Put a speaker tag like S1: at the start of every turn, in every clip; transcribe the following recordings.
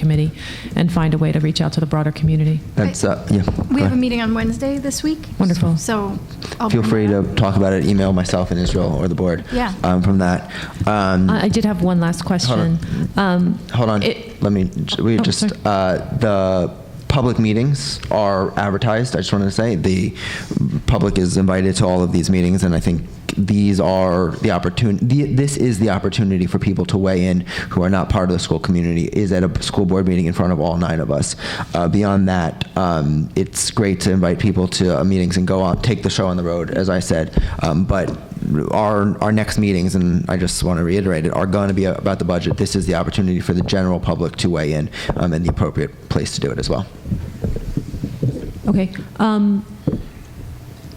S1: committee and find a way to reach out to the broader community.
S2: That's, uh, yeah.
S3: We
S2: go
S3: have a
S2: ahead.
S3: meeting on Wednesday this week.
S1: Wonderful.
S3: So. I'll
S2: Feel free
S3: bring that
S2: to
S3: up.
S2: talk about it, email myself and Israel or the board.
S3: Yeah. Uh,
S2: um, From that. Um,
S1: I I did have one last question. Um,
S2: Hold on,
S1: it-
S2: let me, we
S1: Oh,
S2: just,
S1: sorry.
S2: uh, the public meetings are advertised, I just wanted to say, the public is invited to all of these meetings, and I think these are the opportunity, this is the opportunity for people to weigh in who are not part of the school community, is at a school board meeting in front of all nine of us. Uh, Beyond that, um, it's great to invite people to uh, meetings and go on, take the show on the road, as I said, um, but our, our next meetings, and I just want to reiterate it, are going to be about the budget. This is the opportunity for the general public to weigh in um, and the appropriate place to do it as well.
S1: Okay. um,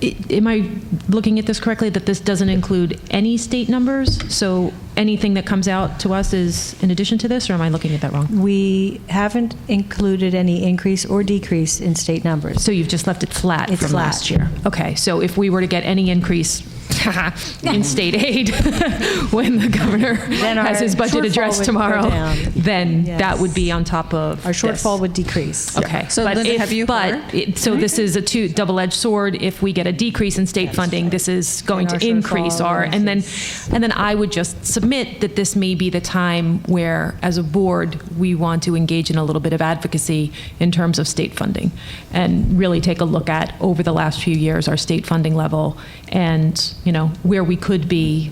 S1: i- Am I looking at this correctly, that this doesn't include any state numbers? So anything that comes out to us is in addition to this, or am I looking at that wrong?
S4: We haven't included any increase or decrease in state numbers.
S1: So you've just left it flat
S4: It's
S1: from
S4: flat.
S1: last year? Okay, so if we were to get any increase in state aid when the governor
S4: Then
S1: has
S4: our
S1: his budget
S4: shortfall
S1: addressed
S4: would go
S1: tomorrow,
S4: down.
S1: then that
S4: Yes.
S1: would be on top of
S4: Our
S1: this.
S4: shortfall would decrease.
S1: Okay.
S5: So
S1: but
S5: Linda,
S1: if-
S5: have you
S1: But,
S5: heard?
S1: it- so this is a two, double-edged sword. If we get a decrease in state funding, this is going
S4: And
S1: to
S4: our
S1: increase
S4: shortfall
S1: our, and then, and then I would just submit that this may be the time where, as a board, we want to engage in a little bit of advocacy in terms of state funding and really take a look at, over the last few years, our state funding level and, you know, where we could be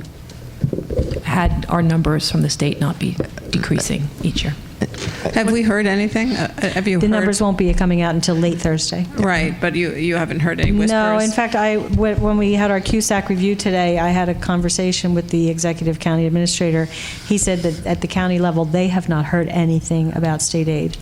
S1: had our numbers from the state not be decreasing each year.
S5: Have we heard anything? Uh, Have you
S4: The
S5: heard?
S4: numbers won't be coming out until late Thursday.
S5: Right, but you, you haven't heard any whispers?
S4: No, in fact, I, wh- when we had our CUSAC review today, I had a conversation with the executive county administrator. He said that at the county level, they have not heard anything about state aid.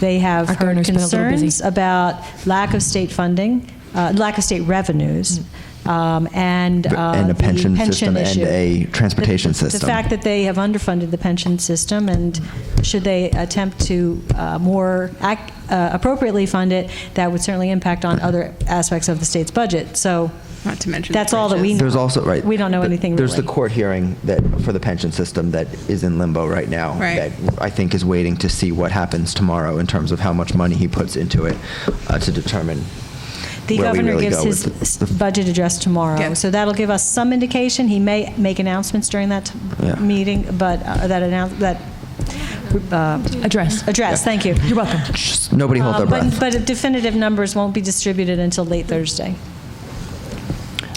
S4: They have
S1: Our
S4: heard
S1: governor's been a little busy.
S4: concerns about lack of state funding, uh, lack of state revenues,
S1: Mm.
S4: um, and uh,
S2: And a
S4: the
S2: pension system
S4: pension
S2: and
S4: issue.
S2: a transportation
S4: The-
S2: system.
S4: The fact that they have underfunded the pension system, and should they attempt to uh, more ac- uh, appropriately fund it, that would certainly impact on other aspects of the state's budget. So
S5: Not to mention. the
S4: that's all that we know.
S5: bridges.
S2: There's also, right.
S4: We don't know
S2: th-
S4: anything
S2: There's the
S4: really.
S2: court hearing that, for the pension system that is in limbo right now.
S5: Right.
S2: That I think is waiting to see what happens tomorrow in terms of how much money he puts into it uh, to determine
S4: The
S2: where we
S4: governor
S2: really
S4: gives
S2: go
S4: his
S2: with
S4: s-
S2: the-
S4: budget address
S5: Yeah.
S4: tomorrow, so that'll give us some indication. He may make announcements during that t-
S2: Yeah.
S4: meeting, but uh, that announce, that uh,
S1: Address.
S4: address, thank you. You're welcome.
S2: Just Nobody hold their breath.
S4: But definitive numbers won't be distributed until late Thursday.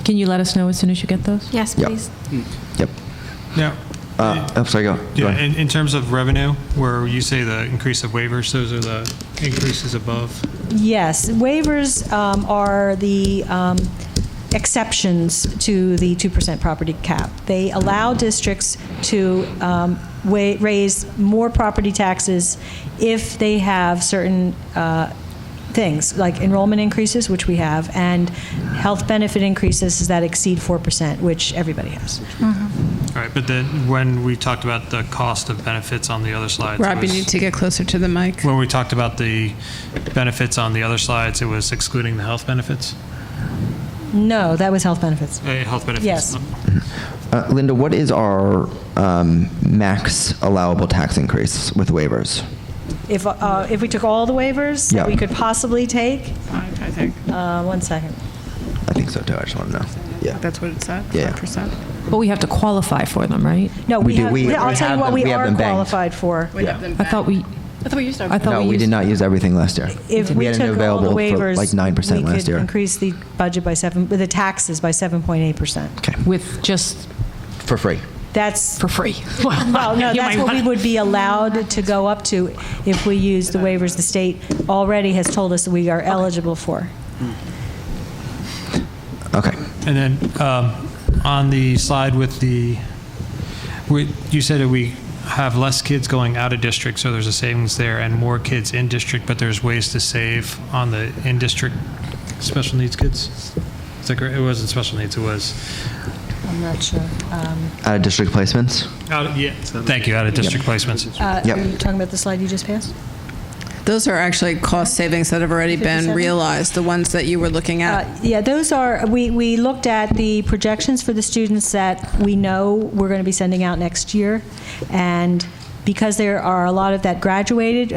S1: Can you let us know as soon as you get those?
S3: Yes,
S2: Yep.
S3: please.
S2: Yep.
S6: Now,
S2: Uh, I'm sorry, go. go
S6: yeah,
S2: ahead.
S6: in, in terms of revenue, where you say the increase of waivers, those are the increases above.
S4: Yes, waivers um, are the um, exceptions to the 2% property cap. They allow districts to um, wa- raise more property taxes if they have certain uh, things, like enrollment increases, which we have, and health benefit increases that exceed 4%, which everybody has.
S6: All right, but then when we talked about the cost of benefits on the other slides,
S5: Rob, you
S6: was-
S5: need to get closer to the mic.
S6: when we talked about the benefits on the other slides, it was excluding the health benefits.
S4: No, that was health benefits.
S6: Uh, health benefits.
S4: Yes.
S2: Uh, Linda, what is our um, max allowable tax increase with waivers?
S4: If, uh, if we took all the waivers that we
S2: Yeah.
S4: could possibly take,
S5: Five, I think.
S4: uh, one second.
S2: I think so too. I just want to know. Yeah.
S5: That's what it said,
S2: Yeah.
S5: 5%.
S1: But we have to qualify for them, right?
S4: No,
S2: We
S4: we
S2: do.
S4: have,
S2: We-
S4: I'll
S2: we
S4: tell
S2: have
S4: you what
S2: them.
S4: we
S2: We have
S4: are
S2: them banked.
S4: qualified for.
S1: I thought we,
S7: I thought we used our
S1: I thought
S2: No,
S1: we
S2: we
S1: used.
S2: did not use everything last year.
S4: If we
S2: had it
S4: took all
S2: available
S4: the
S2: for
S4: waivers.
S2: like 9%
S4: we
S2: last
S4: could
S2: year.
S4: increase the budget by seven, the taxes by 7.8%.
S2: Okay,
S1: With just
S2: for free.
S4: That's,
S1: for free.
S4: well, no,
S1: You
S4: that's
S1: might
S4: what we
S1: wanna-
S4: would be allowed to go up to if we use the waivers the state already has told us we are eligible for.
S2: Okay.
S6: And then um, on the slide with the, we- you said that we have less kids going out of district, so there's a savings there, and more kids in district, but there's ways to save on the in-district special needs kids? Is that correct? It wasn't special needs, it was,
S4: I'm not sure. Um,
S2: Out of district placements?
S6: out of- yeah, thank you, out-of-district placements.
S4: uh,
S2: Yep.
S4: Are you talking about the slide you just passed?
S5: Those are actually cost savings that have already been
S4: 57?
S5: realized, the ones that you were looking
S4: Uh,
S5: at.
S4: Yeah, those are, we, we looked at the projections for the students that we know we're going to be sending out next year. And because there are a lot of that graduated,